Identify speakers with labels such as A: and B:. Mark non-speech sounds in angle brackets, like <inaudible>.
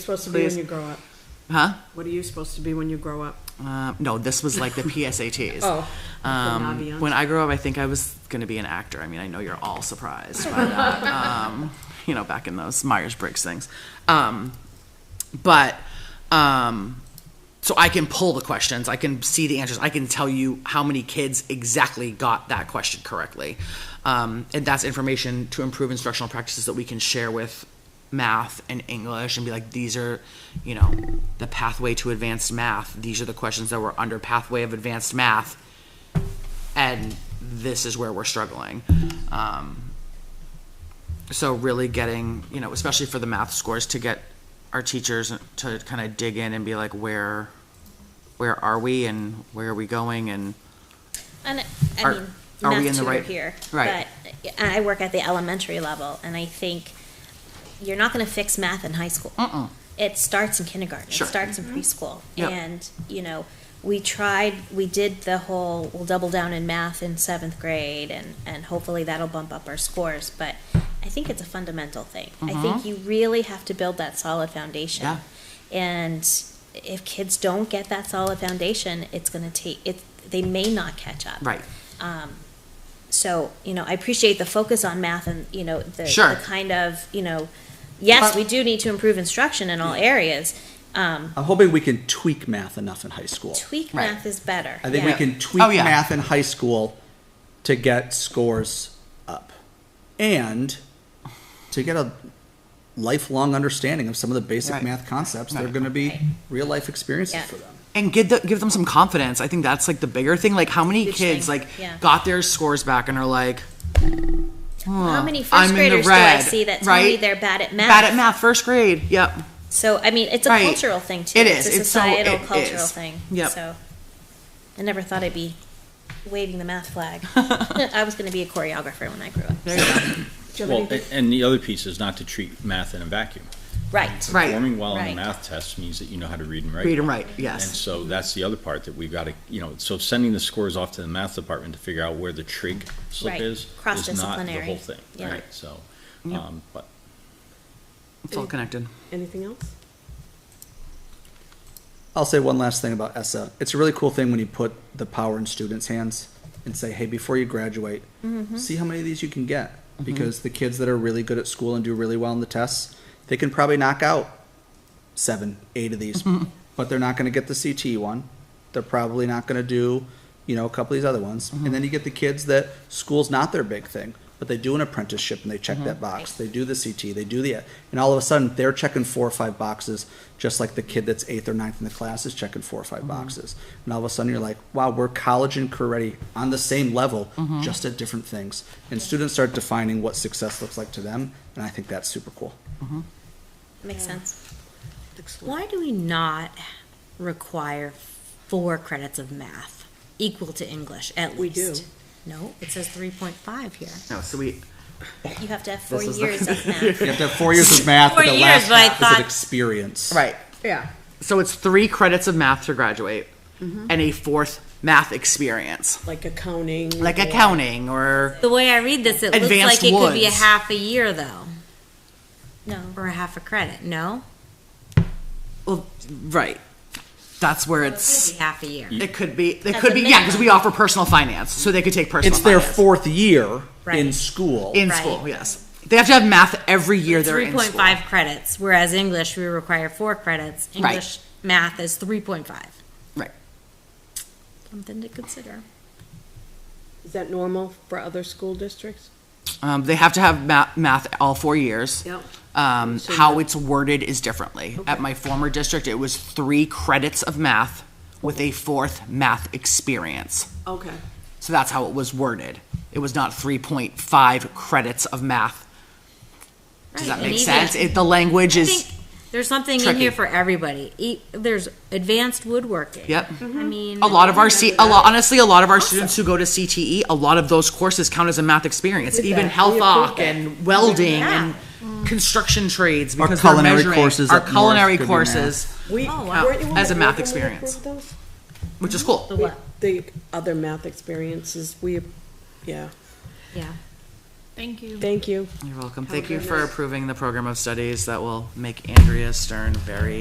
A: supposed to be when
B: please.
A: you grow up?
B: Huh?
A: What are you supposed to be when you grow up?
B: Uh, no, this was like the PSATs.
A: Oh,
B: Um,
A: Aviance.
B: when I grew up, I think I was going to be an actor. I mean, I know you're all surprised by that. um, you know, back in those Myers Briggs things. Um, but um, so I can pull the questions, I can see the answers, I can tell you how many kids exactly got that question correctly. Um, and that's information to improve instructional practices that we can share with math and English and be like, these are, you know, the pathway to advanced math. These are the questions that were under pathway of advanced math and this is where we're struggling. Um, so really getting, you know, especially for the math scores, to get our teachers to kind of dig in and be like, where, where are we and where are we going and
C: And I
B: Are-
C: mean,
B: are we
C: not
B: in the
C: to
B: right-
C: here,
B: right.
C: but I work at the elementary level, and I think you're not going to fix math in high school.
B: Mm-mm.
C: It starts in kindergarten.
B: Sure.
C: It starts in preschool,
B: Yep.
C: and you know, we tried, we did the whole, we'll double down in math in seventh grade, and and hopefully that'll bump up our scores. But I think it's a fundamental thing. I think you really have to build that solid foundation.
B: Mm-hmm. Yeah.
C: And if kids don't get that solid foundation, it's going to take it. They may not catch up.
B: right,
C: Um, so, you know, I appreciate the focus on math and, you know, the,
B: Sure.
C: the kind of, you know, yes,
B: But-
C: we do need to improve instruction in all areas. Um,
D: I'm hoping we can tweak math enough in high school.
C: tweak
B: Right.
C: math is better.
D: I think we
C: yeah.
D: can tweak
B: Oh, yeah.
D: math in high school to get scores up and to get a lifelong understanding of some of the basic
B: Right.
D: math concepts. They're
B: Right.
D: going to be
C: Right.
D: real life experiences
C: Yeah.
D: for them.
B: and give the, give them some confidence. I think that's like the bigger thing. Like how many
C: Huge
B: kids
C: thing,
B: like
C: yeah.
B: got their scores back and are like,
C: How many
B: I'm
C: first
B: in the
C: graders do I
B: red,
C: see that tell
B: right?
C: me they're bad at math?
B: bad at math, first grade. Yep.
C: <laughs> So, I mean, it's a
B: Right.
C: cultural thing too.
B: It is.
C: It's a
B: It's so-
C: societal,
B: it
C: cultural
B: is.
C: thing.
B: Yep.
C: So, I never thought I'd be waving the math flag. <laughs> I was going to be a choreographer when I grew up.
A: Do you have
E: Well,
A: anything?
E: a- and the other piece is not to treat math in a vacuum.
C: Right.
B: Right.
E: Performing well on
C: Right.
E: a math test means that you know how to read and write.
B: Read and write.
E: And
B: Yes.
E: so that's the other part that we've got to, you know, so sending the scores off to the math department to figure out where the trig slip
C: Right.
E: is, is not the
C: Cross-disciplinary.
E: whole thing,
C: Yeah.
E: right? So,
B: Yep.
E: um, but
B: It's all connected.
A: Anything else?
D: I'll say one last thing about ESSA. It's a really cool thing when you put the power in students' hands and say, hey, before you graduate, see how many of these you can get. Because the kids that are really good at school and do really well in the tests, they can probably knock out seven, eight of these, but they're not going to get the CT one. They're probably not going to do, you know, a couple of these other ones. And then you get the kids that school's not their big thing, but they do an apprenticeship and they check that box. They do the CT, they do the, and all of a sudden they're checking four or five boxes, just like the kid that's eighth or ninth in the class is checking four or 5 boxes. And all of a sudden you're like, wow, we're college and career ready on the same level, just at different things. And students start defining what success looks like to them. And I think that's super cool.
C: Makes sense.
F: Why do we not require four credits of math equal to English at
A: We
F: least?
A: do.
F: No, it says three point five here.
B: No, so we
C: You have to have four
B: is the-
C: years
B: <laughs>
C: of math.
D: You have to have four years of math,
F: Four
D: but the
F: years,
D: last
F: but I
D: half is
F: thought-
D: an experience.
B: right.
A: Yeah.
B: So it's three credits of math to graduate
C: Mm-hmm.
B: and a fourth math experience,
A: Like accounting.
B: like
A: or-
B: accounting or
F: The way I read this, it
B: Advanced
F: looks like it could be a
B: Woods.
F: half a year though,
C: No.
F: or a half a credit. No,
B: well, right. That's where
F: It's
B: it's
F: half a year.
B: it could be it
C: That's
B: could
C: a
B: be yeah because we offer personal finance, so they could take personal.
D: It's their
B: finance.
D: fourth year in
F: Right.
D: school.
B: in
F: Right.
B: school. Yes, they have to have math every year. They're
F: Three
B: in
F: point
B: school.
F: five credits, whereas English we require four credits.
B: Right.
F: English math is three point five.
B: Right.
F: Something to consider.
A: Is that normal for other school districts?
B: Um, they have to have math, math all four years.
A: Yep.
B: Um,
A: So
B: how
A: the-
B: it's worded is differently. At
A: Okay.
B: my former district, it was three credits of math with a fourth math experience.
A: Okay.
B: So that's how it was worded. It was not 3.5 credits of math. Does that
F: Right,
B: make
F: and
B: sense?
F: even-
B: It, the language
F: I
B: is,
F: think there's something in
B: tricky.
F: here for everybody. E- There's advanced woodworking.
B: Yep. Mm-hmm.
F: I mean,
B: a lot of our, C, a lot, honestly, a lot of our students who go to CTE, a lot of those courses count as a math experience, even
A: that.
B: health
A: We approve
B: oc
A: that.
B: and welding and construction trades
D: Our
B: because they're
D: culinary
B: measuring-
D: courses
B: our
D: up north
B: culinary
D: could be math.
B: courses,
A: We,
F: Oh, wow.
A: weren't you
B: As a
A: on
B: math
A: the board when we
B: experience.
A: approved those?
B: which is cool.
A: The other math experiences, we, yeah,
F: Yeah.
G: Thank you.
A: Thank you.
B: You're welcome.
G: Have a
B: Thank you
G: great
B: for
G: night.
B: approving the program of studies that will make Andrea Stern very